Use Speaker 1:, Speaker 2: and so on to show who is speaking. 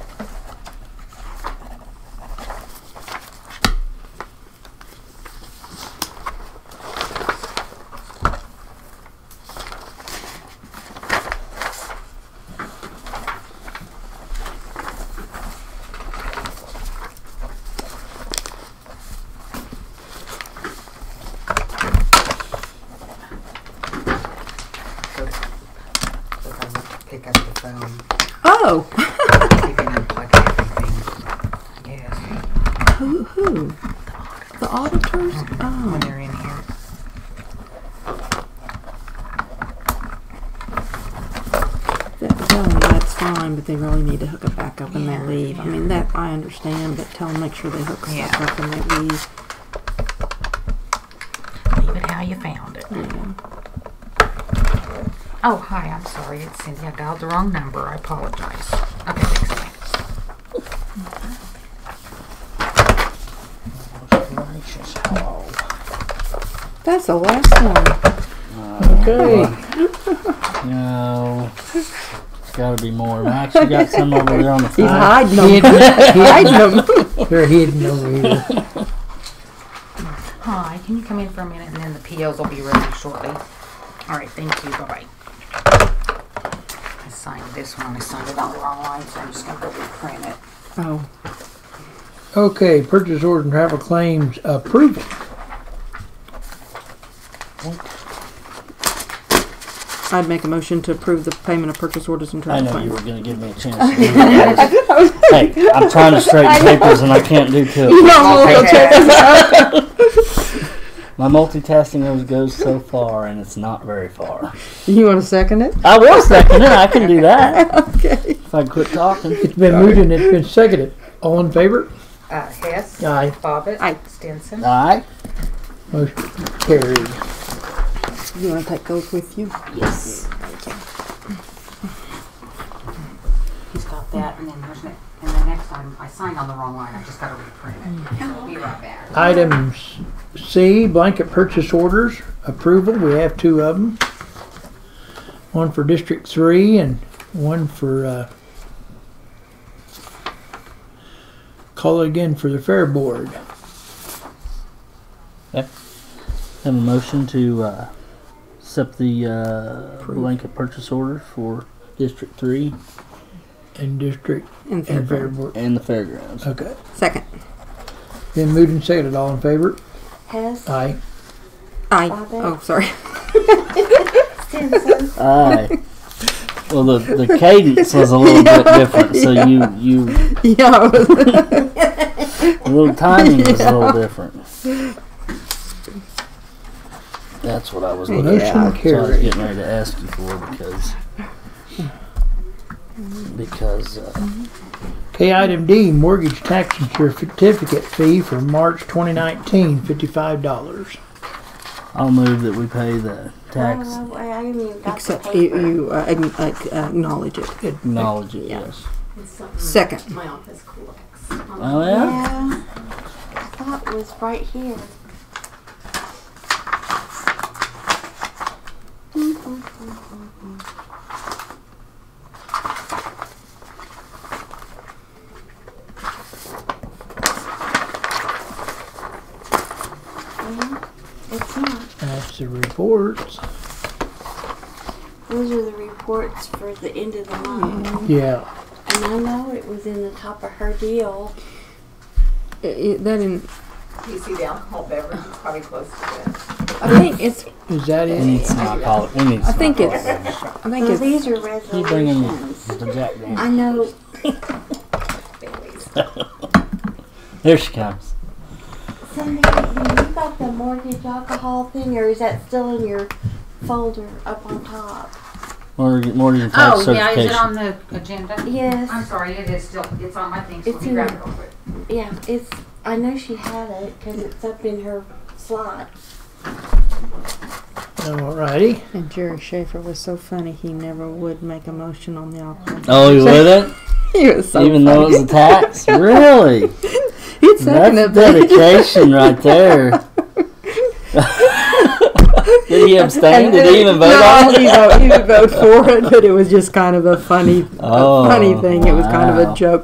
Speaker 1: Oh,
Speaker 2: Taking and plugging everything. Yes,
Speaker 1: who? Who? The auditors? Oh,
Speaker 2: when they're in here.
Speaker 1: that, tell them that's fine, but they really need to hook it back up when
Speaker 2: Yeah,
Speaker 1: they leave. I mean, that I understand, but tell them make sure they hook stuff
Speaker 2: Yeah.
Speaker 1: up when they leave.
Speaker 2: Leave it how you found it.
Speaker 1: Yeah.
Speaker 2: Oh, hi, I'm sorry. It's Cindy. I dialed the wrong number. I apologize. Okay, thanks. bye.
Speaker 3: Gracious, hello.
Speaker 1: That's the last one.
Speaker 3: Okay. No. There's gotta be more. Max, you got some over there on the
Speaker 1: He's
Speaker 3: side.
Speaker 1: hiding them. hiding them.
Speaker 4: They're hidden over here.
Speaker 2: Hi, can you come in for a minute and then the POs will be ready shortly? All right, thank you. Bye bye. I signed this one. I signed it on the wrong line, so I'm just going to go reprint it.
Speaker 1: Oh,
Speaker 4: Okay, purchase order and travel claims approved.
Speaker 1: I'd make a motion to approve the payment of purchase orders and
Speaker 3: I
Speaker 1: travel
Speaker 3: know you
Speaker 1: claims.
Speaker 3: were gonna give me a chance. to do that. Hey, I'm trying to straighten papers and I can't do two. of them. My multitasking always goes so far and it's not very far.
Speaker 1: You want to second it?
Speaker 3: I will second it. I can do that.
Speaker 1: Okay.
Speaker 3: If I quit talking.
Speaker 4: It's been moved and it's been seconded. All in favor?
Speaker 2: Uh, Hess,
Speaker 4: Aye.
Speaker 2: Bobbitt,
Speaker 1: Aye.
Speaker 2: Stinson.
Speaker 3: Aye.
Speaker 4: Motion carried.
Speaker 1: You want to take those with you?
Speaker 2: Yes. He's got that, and then there's it. And the next time I signed on the wrong line, I just got to reprint it. Be right back.
Speaker 4: Item C, blanket purchase orders approval. We have two of them. One for District Three and one for, uh, call it again for the Fair Board.
Speaker 3: Have a motion to uh, accept the uh, blanket purchase order for District 3
Speaker 4: And District
Speaker 1: And
Speaker 4: and Fair
Speaker 1: third.
Speaker 4: Board.
Speaker 3: and the fairgrounds.
Speaker 4: Okay.
Speaker 1: Second.
Speaker 4: Then moved and seconded. All in favor?
Speaker 5: Hess,
Speaker 4: Aye.
Speaker 1: I.
Speaker 5: Bobbitt.
Speaker 1: Oh, sorry.
Speaker 5: Stinson,
Speaker 3: Aye. Well, the, the cadence was a little bit different, so you, you
Speaker 1: yeah. I was-
Speaker 3: the little timing was a little different. That's what I was looking
Speaker 4: Motion
Speaker 3: for. So I was
Speaker 4: carried.
Speaker 3: getting ready to ask you for because because uh,
Speaker 4: Okay, item D, mortgage tax and certificate fee for March 2019, $55.
Speaker 3: I'll move that we pay the tax.
Speaker 5: Oh, I I haven't even got the
Speaker 1: Except you,
Speaker 5: paper.
Speaker 1: you uh, agn- ac- acknowledge it.
Speaker 3: Acknowledge it.
Speaker 1: Yeah.
Speaker 3: Yes.
Speaker 1: Second.
Speaker 6: My office collects.
Speaker 3: Oh yeah.
Speaker 5: Yeah, I thought it was right here. Well, It's not.
Speaker 4: That's the reports.
Speaker 5: Those are the reports for the end of the month.
Speaker 1: Hmm.
Speaker 4: Yeah,
Speaker 5: And I know it was in the top of her deal.
Speaker 1: I- I- that in,
Speaker 6: PC the alcohol beverage is probably close to this.
Speaker 1: I think it's.
Speaker 4: is that
Speaker 3: We need
Speaker 4: it?
Speaker 3: some alcoholic. We need
Speaker 1: I
Speaker 3: some
Speaker 1: think it's.
Speaker 3: alcoholic.
Speaker 1: I think
Speaker 5: So
Speaker 1: it's.
Speaker 5: these are
Speaker 3: Keep bringing
Speaker 5: resolutions.
Speaker 3: the Jack Daniels.
Speaker 5: I know
Speaker 6: Baileys.
Speaker 3: There she comes.
Speaker 5: Cindy, have you got the mortgage alcohol thing, or is that still in your folder up on top?
Speaker 3: Mortgage, mortgage tax
Speaker 2: Oh, yeah, is
Speaker 3: certification.
Speaker 2: it on the agenda? I'm
Speaker 5: Yes.
Speaker 2: sorry, it is still, it's on my thing, so
Speaker 5: It's
Speaker 2: let me
Speaker 5: in
Speaker 2: grab
Speaker 5: there.
Speaker 2: it real quick.
Speaker 5: Yeah, it's. I know she had it because it's up in her slot.
Speaker 4: All righty.
Speaker 1: And Jerry Schaefer was so funny, he never would make a motion on the alcohol.
Speaker 3: oh, you with it?
Speaker 1: He was so
Speaker 3: Even though it was a tax? really?
Speaker 1: He'd second
Speaker 3: That's
Speaker 1: it, but
Speaker 3: dedication right there. Did he abstain? Did he even vote
Speaker 1: no,
Speaker 3: on
Speaker 1: he,
Speaker 3: it?
Speaker 1: vote, he would vote for it, but it was just kind of a funny,
Speaker 3: Oh,
Speaker 1: a funny thing. It was kind of
Speaker 3: wow.
Speaker 1: a joke